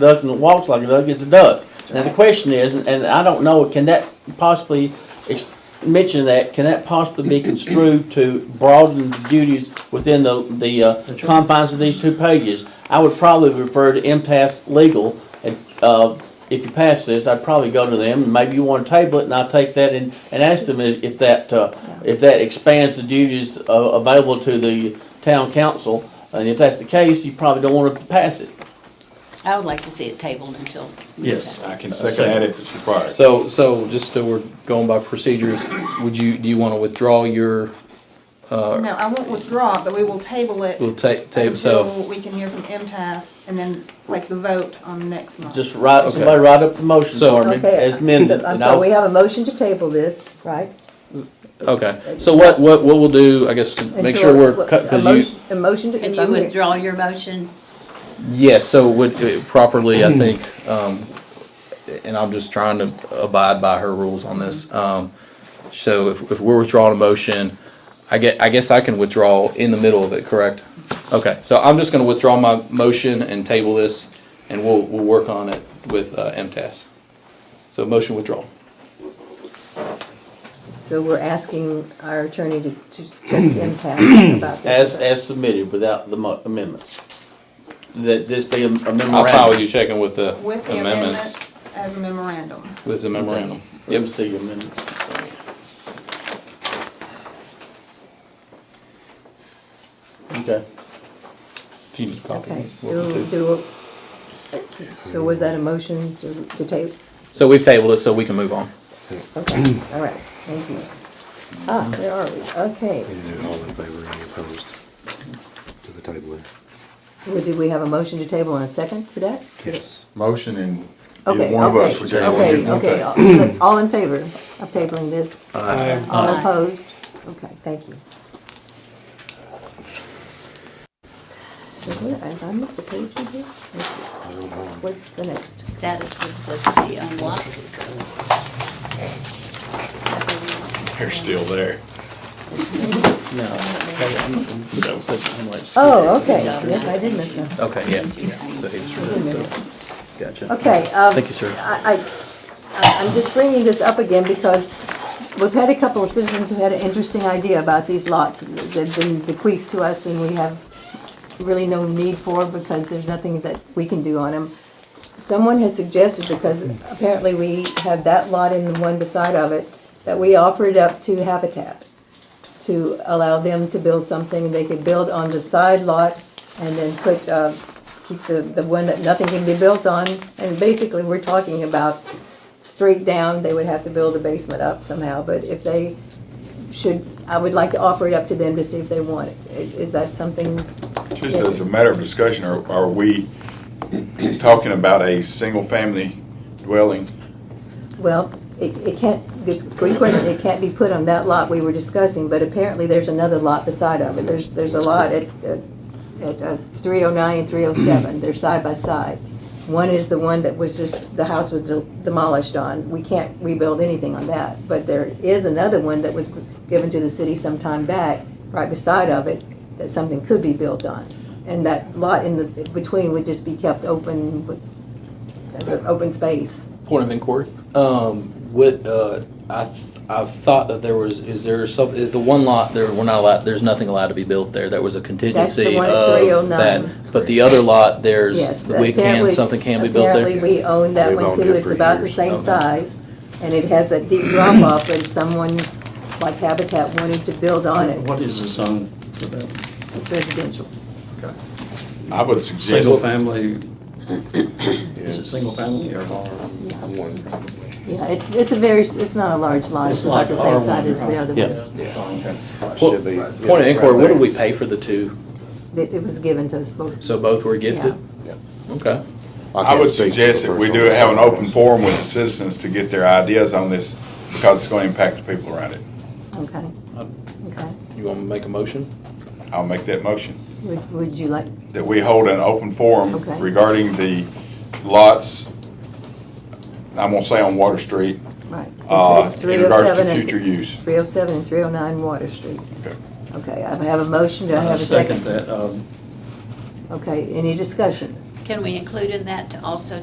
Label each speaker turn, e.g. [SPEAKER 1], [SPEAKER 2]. [SPEAKER 1] duck and walks like a duck is a duck. Now, the question is, and I don't know, can that possibly, ex- mention that, can that possibly be construed to broaden the duties within the, the uh,
[SPEAKER 2] That's right.
[SPEAKER 1] confines of these two pages? I would probably refer to MTS legal, and, uh, if you pass this, I'd probably go to them, and maybe you wanna table it, and I'll take that and, and ask them if if that, uh, if that expands the duties uh, available to the town council, and if that's the case, you probably don't wanna pass it.
[SPEAKER 3] I would like to see it tabled until.
[SPEAKER 2] Yes.
[SPEAKER 4] I can
[SPEAKER 2] Second.
[SPEAKER 4] second that if it's required.
[SPEAKER 5] So, so just so we're going by procedures, would you, do you want to withdraw your,
[SPEAKER 6] No, I won't withdraw, but we will table it.
[SPEAKER 5] we'll take, table, so,
[SPEAKER 6] Until we can hear from MTS and then like the vote on next month.
[SPEAKER 1] Just write, somebody write up the motion
[SPEAKER 5] So-
[SPEAKER 1] for me,
[SPEAKER 7] Okay,
[SPEAKER 1] as amended,
[SPEAKER 7] so- I'm
[SPEAKER 1] and
[SPEAKER 7] sorry, we
[SPEAKER 1] I'll,
[SPEAKER 7] have a motion to table this, right?
[SPEAKER 5] okay. So what, what, what we'll do, I guess, to make
[SPEAKER 7] Until-
[SPEAKER 5] sure we're,
[SPEAKER 7] what-
[SPEAKER 5] cut
[SPEAKER 7] a
[SPEAKER 5] because you,
[SPEAKER 7] motion- A motion to.
[SPEAKER 3] Can
[SPEAKER 7] if
[SPEAKER 3] you
[SPEAKER 7] I'm here-
[SPEAKER 3] withdraw your motion?
[SPEAKER 5] yes, so would, uh, properly,
[SPEAKER 4] Mm-hmm.
[SPEAKER 5] I think, um, and I'm just trying to abide by her rules on this. Um, so if, if we're withdrawing a motion, I get, I guess I can withdraw in the middle of it, correct? Okay, so I'm just gonna withdraw my motion and table this, and we'll, we'll work on it with, uh, MTS. So motion withdrawal.
[SPEAKER 7] So we're asking our attorney to, to check the impact about
[SPEAKER 1] as,
[SPEAKER 7] this.
[SPEAKER 1] as submitted without the mo- amendments. That this be a memorandum.
[SPEAKER 5] I'll file you checking with the
[SPEAKER 6] With the
[SPEAKER 5] amendments,
[SPEAKER 6] amendments as a memorandum.
[SPEAKER 5] with the memorandum.
[SPEAKER 1] Let me
[SPEAKER 5] Yep,
[SPEAKER 1] see your amendment. Okay,
[SPEAKER 5] if you need a copy,
[SPEAKER 7] Okay,
[SPEAKER 5] welcome
[SPEAKER 7] do,
[SPEAKER 5] to.
[SPEAKER 7] do, so was that a motion to, to table?
[SPEAKER 5] So we've tabled it, so we can move on.
[SPEAKER 7] Okay, all right, thank you. Ah, where are we? Okay,
[SPEAKER 8] You do all in favor, any opposed to the tabling?
[SPEAKER 7] Well, did we have a motion to table and a second for that?
[SPEAKER 8] Yes.
[SPEAKER 4] Motion and either
[SPEAKER 7] Okay,
[SPEAKER 4] one of us,
[SPEAKER 7] okay,
[SPEAKER 4] whichever one you
[SPEAKER 7] okay,
[SPEAKER 4] want.
[SPEAKER 7] okay. All- All in favor of tabling this? All
[SPEAKER 3] Aye.
[SPEAKER 7] opposed? Okay, thank you. So where, I- I missed a page in here? Let's see,
[SPEAKER 8] I don't know.
[SPEAKER 7] What's the next?
[SPEAKER 3] Status simplicity unlocked.
[SPEAKER 4] They're still there.
[SPEAKER 1] now, okay, I'm- I'm- I'm like-
[SPEAKER 7] Oh, okay, yes, I did miss that.
[SPEAKER 5] Okay, yeah. So he just read it, so- Gotcha.
[SPEAKER 7] Okay, um.
[SPEAKER 5] Thank you, sir.
[SPEAKER 7] I, I- I, I'm just bringing this up again because we've had a couple of citizens who had an interesting idea about these lots. They've been bequeathed to us and we have really no need for because there's nothing that we can do on them. Someone has suggested, because apparently we have that lot and the one beside of it, that we offer it up to Habitat to allow them to build something. They could build on the side lot and then put, uh, keep the, the one that nothing can be built on. And basically, we're talking about straight down, they would have to build a basement up somehow. But if they should, I would like to offer it up to them to see if they want it. Is- Is that something?
[SPEAKER 4] Just as a matter of discussion, are, are we talking about a single-family dwelling?
[SPEAKER 7] Well, it, it can't, it's a good question, it can't be put on that lot we were discussing, but apparently there's another lot beside of it. There's, there's a lot at, at- at three oh nine and three oh seven, they're side by side. One is the one that was just, the house was de- demolished on, we can't rebuild anything on that. But there is another one that was given to the city some time back, right beside of it, that something could be built on. And that lot in the, between would just be kept open, with- that's an open space.
[SPEAKER 5] Point of inquiry. Um, what, uh, I, I thought that there was, is there some, is the one lot, there, we're not allowed, there's nothing allowed to be built there. There was a contingency
[SPEAKER 7] one at
[SPEAKER 5] of
[SPEAKER 7] 309.
[SPEAKER 5] that. But the other lot,
[SPEAKER 7] Yes.
[SPEAKER 5] there's, we can,
[SPEAKER 7] apparently-
[SPEAKER 5] something can be built
[SPEAKER 7] Apparently,
[SPEAKER 5] there.
[SPEAKER 7] we own that
[SPEAKER 8] We've
[SPEAKER 7] one
[SPEAKER 8] owned
[SPEAKER 7] too.
[SPEAKER 8] it
[SPEAKER 7] It's
[SPEAKER 8] for
[SPEAKER 7] about the
[SPEAKER 8] years.
[SPEAKER 7] same
[SPEAKER 5] Okay.
[SPEAKER 7] size. And it has that deep drop off and someone like Habitat wanted to build on it.
[SPEAKER 2] What is the zone for that?
[SPEAKER 7] It's residential.
[SPEAKER 4] I would suggest,
[SPEAKER 2] Single family, is it
[SPEAKER 8] Yes.
[SPEAKER 2] single family or R?
[SPEAKER 8] One, probably.
[SPEAKER 7] Yeah, it's, it's a very, s- it's not a large lot. It's
[SPEAKER 2] It's
[SPEAKER 7] about
[SPEAKER 2] like
[SPEAKER 7] the same
[SPEAKER 2] R1,
[SPEAKER 7] size as the other
[SPEAKER 5] Yeah.
[SPEAKER 7] one.
[SPEAKER 8] Should be, yeah,
[SPEAKER 5] Point of inquiry,
[SPEAKER 8] right
[SPEAKER 5] what did
[SPEAKER 8] there.
[SPEAKER 5] we pay for the two?
[SPEAKER 7] It, it was given to us both.
[SPEAKER 5] So both were gifted?
[SPEAKER 8] Yeah.
[SPEAKER 5] Okay.
[SPEAKER 8] can't
[SPEAKER 4] I would
[SPEAKER 8] speak for
[SPEAKER 4] suggest
[SPEAKER 8] the
[SPEAKER 4] that
[SPEAKER 8] first
[SPEAKER 4] we
[SPEAKER 8] one.
[SPEAKER 4] do have an open forum with the citizens to get their ideas on this, because it's gonna impact the people around it.
[SPEAKER 7] Okay.
[SPEAKER 2] Um,
[SPEAKER 7] Okay.
[SPEAKER 5] You want to make a motion?
[SPEAKER 4] I'll make that motion,
[SPEAKER 7] Would, would you like,
[SPEAKER 4] that we hold an open forum
[SPEAKER 7] Okay.
[SPEAKER 4] regarding the lots, I'm gonna say on Water Street,
[SPEAKER 7] right.
[SPEAKER 4] uh,
[SPEAKER 7] It's- it's
[SPEAKER 4] in regards
[SPEAKER 7] 307
[SPEAKER 4] to
[SPEAKER 7] and-
[SPEAKER 4] future use.
[SPEAKER 7] 307 and 309 Water Street.
[SPEAKER 4] Okay.
[SPEAKER 7] Okay, I have a motion. Do I have a
[SPEAKER 2] Second that, um,
[SPEAKER 7] Okay, any discussion?
[SPEAKER 3] Can we include in that to also